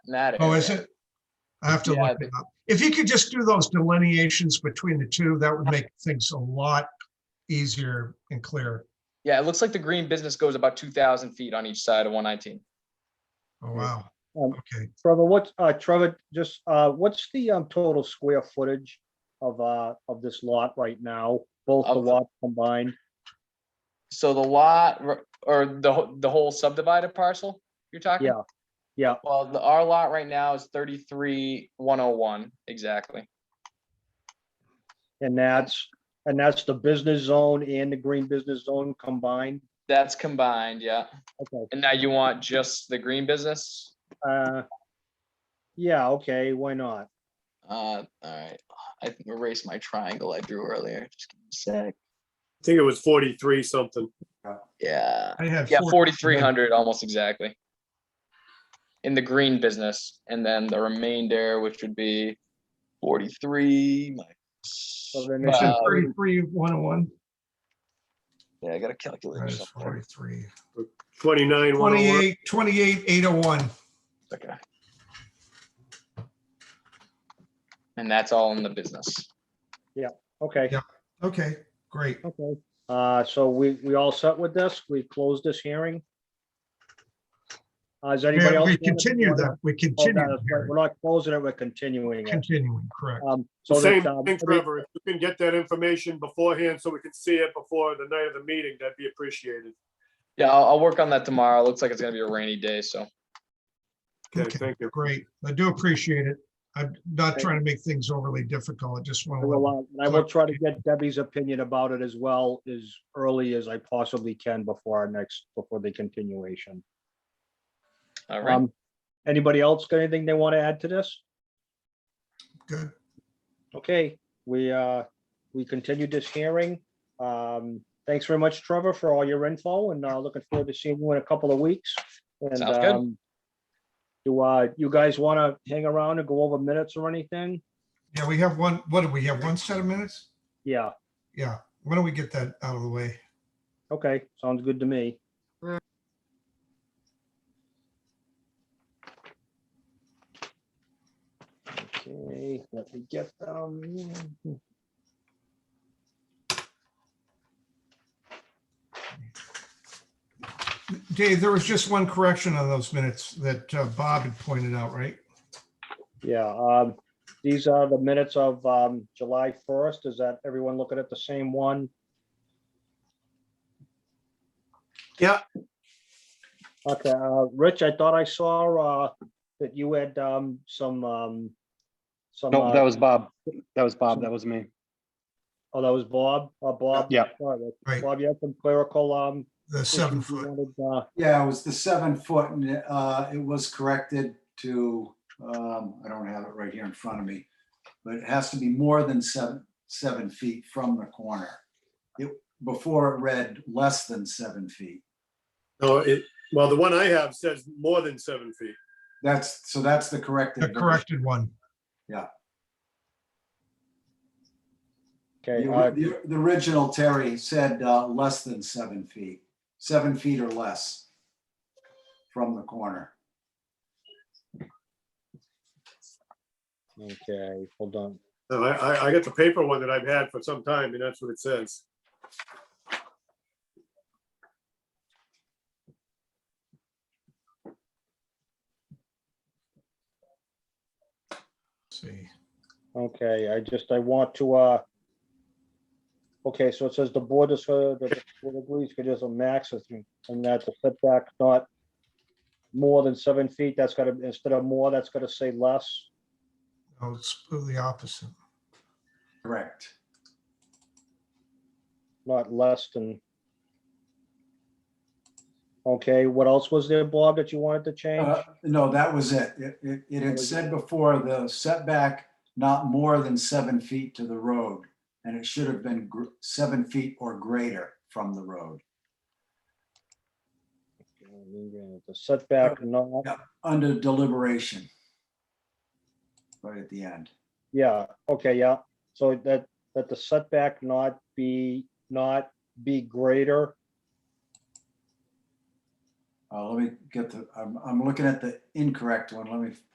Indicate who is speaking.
Speaker 1: in that
Speaker 2: Oh,
Speaker 1: area.
Speaker 2: is it? I have to
Speaker 1: Yeah,
Speaker 2: look it up. If you could just do those delineations between the two, that would make things a lot easier and clearer.
Speaker 1: Yeah, it looks like the green business goes about two thousand feet on each side of one nineteen.
Speaker 2: Oh, wow.
Speaker 3: Um,
Speaker 2: Okay,
Speaker 3: Trevor, what, uh, Trevor, just, uh, what's the, um, total square footage of, uh, of this lot right now? Both the
Speaker 1: Of-
Speaker 3: lots combined?
Speaker 1: So the lot r- or the wh- the whole subdivided parcel you're talking?
Speaker 3: Yeah, yeah.
Speaker 1: Well, the our lot right now is thirty-three one oh one, exactly.
Speaker 3: And that's, and that's the business zone and the green business zone combined?
Speaker 1: That's combined, yeah.
Speaker 3: Okay,
Speaker 1: And now you want just the green business?
Speaker 3: uh, yeah, okay, why not?
Speaker 1: Uh, all right, I erased my triangle I drew earlier. Just give me a sec.
Speaker 4: I think it was forty-three something.
Speaker 1: Yeah,
Speaker 2: I had.
Speaker 1: yeah, forty-three hundred, almost exactly. In the green business, and then the remainder, which would be forty-three. my-
Speaker 3: then
Speaker 2: You
Speaker 3: it's
Speaker 2: said
Speaker 1: Uh,
Speaker 2: Thirty-three, one oh one,
Speaker 1: Yeah, I got a calculator
Speaker 2: minus
Speaker 1: somewhere.
Speaker 2: forty-three.
Speaker 4: Twenty-nine, one oh one.
Speaker 2: Twenty-eight, twenty-eight, eight oh one.
Speaker 1: Okay. And that's all in the business.
Speaker 3: Okay,
Speaker 2: Yeah. Okay, great.
Speaker 3: okay. Uh, so we, we all set with this? We close this hearing? Uh, is anybody
Speaker 2: Yeah,
Speaker 3: else?
Speaker 2: We continue that, we
Speaker 3: Oh,
Speaker 2: continue,
Speaker 3: no,
Speaker 2: the
Speaker 3: We're
Speaker 2: hearing.
Speaker 3: not closing it, we're continuing it.
Speaker 2: continuing, correct.
Speaker 3: Um, so
Speaker 4: Same
Speaker 3: that, um,
Speaker 4: thing, Trevor. If you can get that information beforehand so we can see it before the night of the meeting, that'd be appreciated.
Speaker 1: Yeah, I'll, I'll work on that tomorrow. Looks like it's gonna be a rainy day, so.
Speaker 4: Okay,
Speaker 2: Okay,
Speaker 4: thank you.
Speaker 2: great. I do appreciate it. I'm not
Speaker 3: Thank
Speaker 2: trying to make things overly difficult. I just want
Speaker 3: I
Speaker 2: to.
Speaker 3: will, uh, and I will try to get Debbie's opinion about it as well as early as I possibly can before our next, before the continuation.
Speaker 1: All right,
Speaker 3: Um, anybody else got anything they want to add to this?
Speaker 2: Good.
Speaker 3: Okay, we, uh, we continued this hearing. Um, thanks very much, Trevor, for all your info and, uh, looking forward to seeing you in a couple of weeks. And,
Speaker 1: Sounds good.
Speaker 3: um, do, uh, you guys want to hang around and go over minutes or anything?
Speaker 2: Yeah, we have one, what do we have? One set of minutes?
Speaker 3: Yeah,
Speaker 2: Yeah, why don't we get that out of the way?
Speaker 3: okay, sounds good to me. Okay, let me get them.
Speaker 2: Dave, there was just one correction on those minutes that uh, Bob had pointed out, right?
Speaker 3: Yeah, um, these are the minutes of, um, July first. Is that everyone looking at the same one?
Speaker 4: Yeah.
Speaker 3: Okay, uh, Rich, I thought I saw, uh, that you had, um, some, um, some.
Speaker 5: No,
Speaker 3: uh,
Speaker 5: that was Bob. That was Bob. That was me.
Speaker 3: Oh, that was Bob, uh, Bob?
Speaker 5: Yeah.
Speaker 3: All right,
Speaker 2: Right.
Speaker 3: Bob, you had some clerical, um.
Speaker 2: The seven
Speaker 3: issues you
Speaker 2: foot.
Speaker 3: wanted, uh,
Speaker 6: Yeah, it was the seven foot and uh, it was corrected to, um, I don't have it right here in front of me. But it has to be more than seven, seven feet from the corner. It, before it read less than seven feet.
Speaker 4: No, it, well, the one I have says more than seven feet.
Speaker 6: That's, so that's the corrected.
Speaker 2: The
Speaker 6: version.
Speaker 2: corrected one.
Speaker 3: Okay,
Speaker 6: The
Speaker 3: uh,
Speaker 6: the- the original Terry said uh, less than seven feet, seven feet or less from the corner.
Speaker 3: okay, hold on.
Speaker 4: No, I, I, I got the paper one that I've had for some time and that's what it says.
Speaker 2: See,
Speaker 3: Okay, I just, I want to, uh, okay, so it says the board is, uh, the the board agrees, could just a max of three, and that's a setback, not more than seven feet, that's gotta, instead of more, that's gotta say less.
Speaker 2: oh, it's the opposite.
Speaker 6: Correct.
Speaker 3: not less than. Okay, what else was there, Bob, that you wanted to change?
Speaker 6: Uh, No, that was it. It, it, it had said before the setback not more than seven feet to the road. And it should have been gr- seven feet or greater from the road,
Speaker 3: The setback, not,
Speaker 6: under deliberation. Right at the end.
Speaker 3: yeah, okay, yeah, so that, that the setback not be, not be greater,
Speaker 6: Uh, let me get the, I'm, I'm looking at the incorrect one. Let me